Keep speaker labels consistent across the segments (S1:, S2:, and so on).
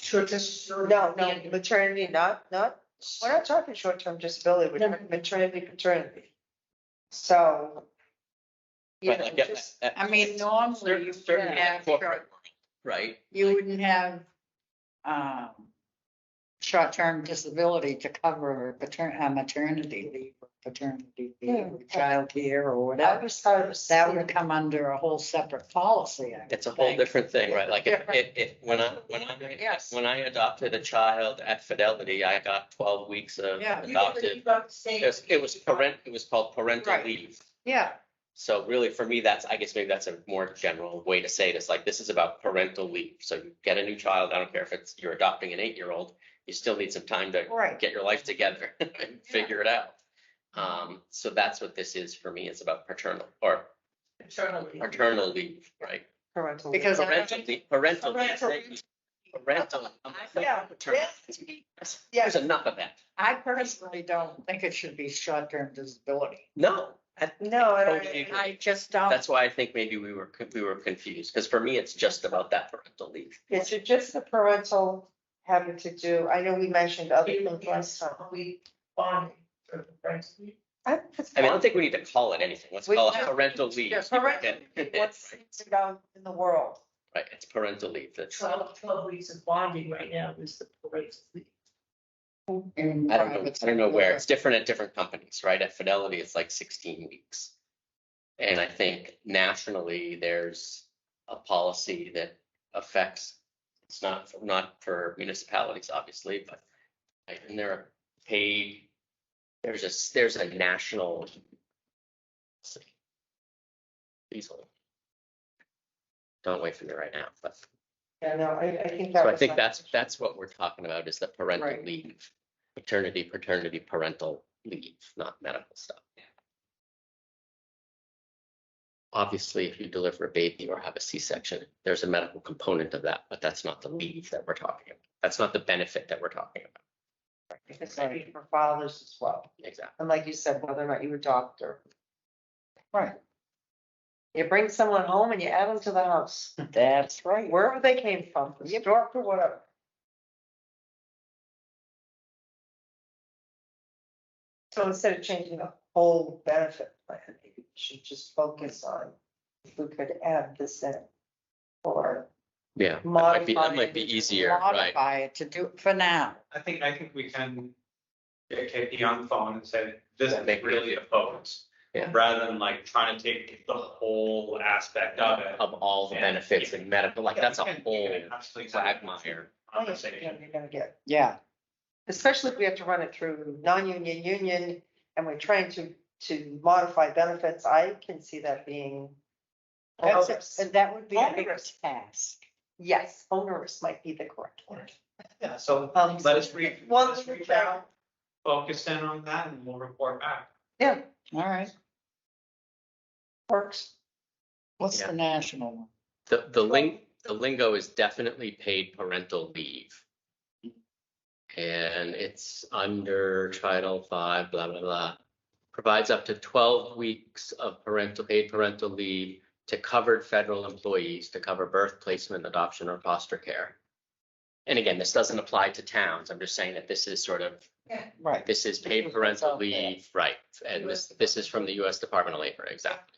S1: shortest.
S2: No, no, maternity, not, not, we're not talking short-term disability, we're
S1: No.
S2: talking maternity, paternity. So. You
S3: Right,
S2: know,
S3: I get
S2: just,
S3: that,
S4: I mean, normally you would
S1: Certainly,
S4: have,
S3: corporate. right?
S4: you wouldn't have, um, short-term disability to cover patern, uh, maternity leave, or paternity leave, or childcare or
S2: I
S4: whatever.
S2: was, I was.
S4: That would come under a whole separate policy. I would
S3: It's a whole
S4: think.
S3: different thing, right? Like, if,
S2: Yeah.
S3: if, if- when I, when I,
S2: Yes.
S3: when I adopted a child at Fidelity, I got twelve weeks of
S4: Yeah.
S3: adopted. It was, it was parent, it was called parental
S2: Right.
S3: leave.
S2: Yeah,
S3: So really, for me, that's, I guess maybe that's a more general way to say this, like, this is about parental leave. So you get a new child, I don't care if it's, you're adopting an eight-year-old, you still need some time to
S2: right.
S3: get your life together and figure it out. Um, so that's what this is for me, it's about paternal or
S1: Internally.
S3: paternal leave, right?
S2: Parental.
S4: Because I-
S3: Parental leave, parental leave,
S2: Parental
S3: thank you. Parental. I'm like,
S2: Yeah.
S3: paternal.
S2: Yes.
S3: There's enough of that.
S4: I personally don't think it should be short-term disability.
S3: No, I-
S2: No, I don't-
S3: Totally agree.
S4: I just don't.
S3: that's why I think maybe we were, we were confused, because for me, it's just about that parental leave.
S2: it's just the parental having to do, I know we mentioned other things last time.
S1: We bonding. for the friends.
S2: I
S3: I mean, I don't think we need to call it anything. Let's
S2: We-
S3: call it parental leave.
S2: Yeah, parental
S3: Right,
S2: What's it about in the world?
S3: it's parental leave. That's, I
S1: Twelve, twelve weeks of bonding right now is the parade.
S4: in
S3: don't know,
S4: private
S3: I don't know where.
S4: sector.
S3: It's different at different companies, right? At Fidelity, it's like sixteen weeks. And I think nationally, there's a policy that affects, it's not, not for municipalities, obviously, but right, and there are paid, there's a, there's a national Easily. Don't wait for me right now, but.
S2: Yeah, no, I, I think that
S3: So
S2: was.
S3: I think
S2: my-
S3: that's, that's what we're talking about is the parental
S4: Right.
S3: leave, paternity, paternity, parental leave, not medical stuff. Obviously, if you deliver a baby or have a C-section, there's a medical component of that, but that's not the leave that we're talking about. That's not the benefit that we're talking about.
S2: It's gonna be for fathers as well.
S3: Exactly.
S2: And like you said, whether or not you adopt or.
S4: Right.
S2: You bring someone home and you add them to the house,
S4: That's right.
S2: wherever they came from, from
S4: Yep.
S2: York or whatever. So instead of changing the whole benefit plan, maybe we should just focus on if we could add this in. Or
S3: Yeah, that might be,
S2: modify.
S3: that might be
S2: it.
S3: easier, right?
S4: Modify it to do, for now.
S5: I think, I think we can get Katie on the phone and say, this
S3: Yeah, make
S5: is
S3: it
S5: really a focus.
S3: Yeah.
S5: Rather than like trying to take the whole aspect of it.
S3: Of all the
S5: Yeah.
S3: benefits and medical, like that's a
S5: Yeah, we can-
S3: whole
S5: we can absolutely have a
S3: quagmire.
S2: Oh, yeah, yeah,
S5: Conversation.
S2: You're gonna get.
S4: Yeah.
S2: especially if we have to run it through non-union, union, and we're trying to, to modify benefits, I can see that being.
S4: That's,
S2: onerous.
S4: it. that would be a big
S2: Onerous.
S4: task.
S2: Yes, onerous might be the correct word.
S5: Yeah, so
S2: Um,
S5: let us re.
S2: One,
S5: let us reach out, Focus in on that and we'll report back.
S2: yeah,
S4: All right.
S2: works.
S4: What's
S3: Yeah.
S4: the national one?
S3: The, the ling, the lingo is definitely paid parental leave. And it's under Title Five, blah, blah, blah. Provides up to twelve weeks of parental, paid parental leave to covered federal employees to cover birth, placement, adoption, or foster care. And again, this doesn't apply to towns. I'm just saying that this is sort of,
S4: Right.
S3: this is paid parental leave, right? And this, this is from the US Department of Labor, exactly.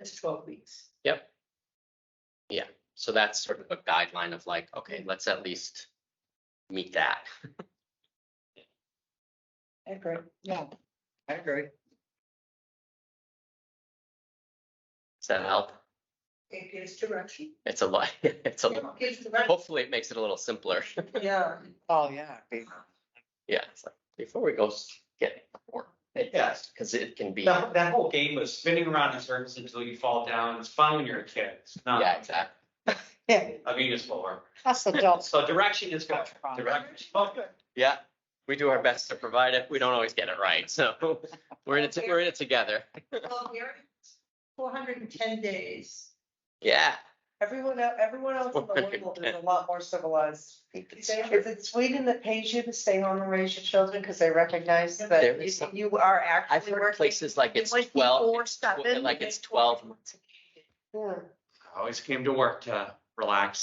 S1: It's twelve weeks.
S3: So that's sort of a guideline of like, okay, let's at least meet that.
S2: I agree.
S4: Yeah. I agree.
S3: Does that help?
S1: It gives direction.
S3: It's a lot, it's a,
S1: It
S3: little-
S1: gives direction.
S3: hopefully it makes it a little simpler.
S2: Yeah.
S4: Oh, yeah. be-
S3: Yeah, it's like, before we go s- get more,
S5: Yes.
S3: because it can be,
S5: That, that whole game of spinning around in circles until you fall down. It's fun when you're a kid. It's
S3: yeah,
S5: not
S3: exactly.
S2: Yeah,
S5: a municipal work.
S4: Us adults.
S5: So direction is good. Direction. Well, good.
S3: Yeah, we do our best to provide it. We don't always get it right, so we're in it, we're in it together.
S1: Well, we're Four hundred and ten days.
S3: Yeah.
S2: everyone, el- everyone else in the world is a lot more civilized. Is it Sweden that pays you to stay home and raise your children because they recognize
S3: There
S2: that
S3: is
S2: you-
S3: some-
S2: you are
S3: I've
S2: actually
S3: heard
S2: working?
S3: places like it's
S1: Like
S3: twelve,
S1: before
S3: it's tw-
S1: seven,
S3: like
S1: they
S3: it's
S1: go out
S3: twelve
S1: once a week.
S2: Yeah.
S5: I Always came to work to relax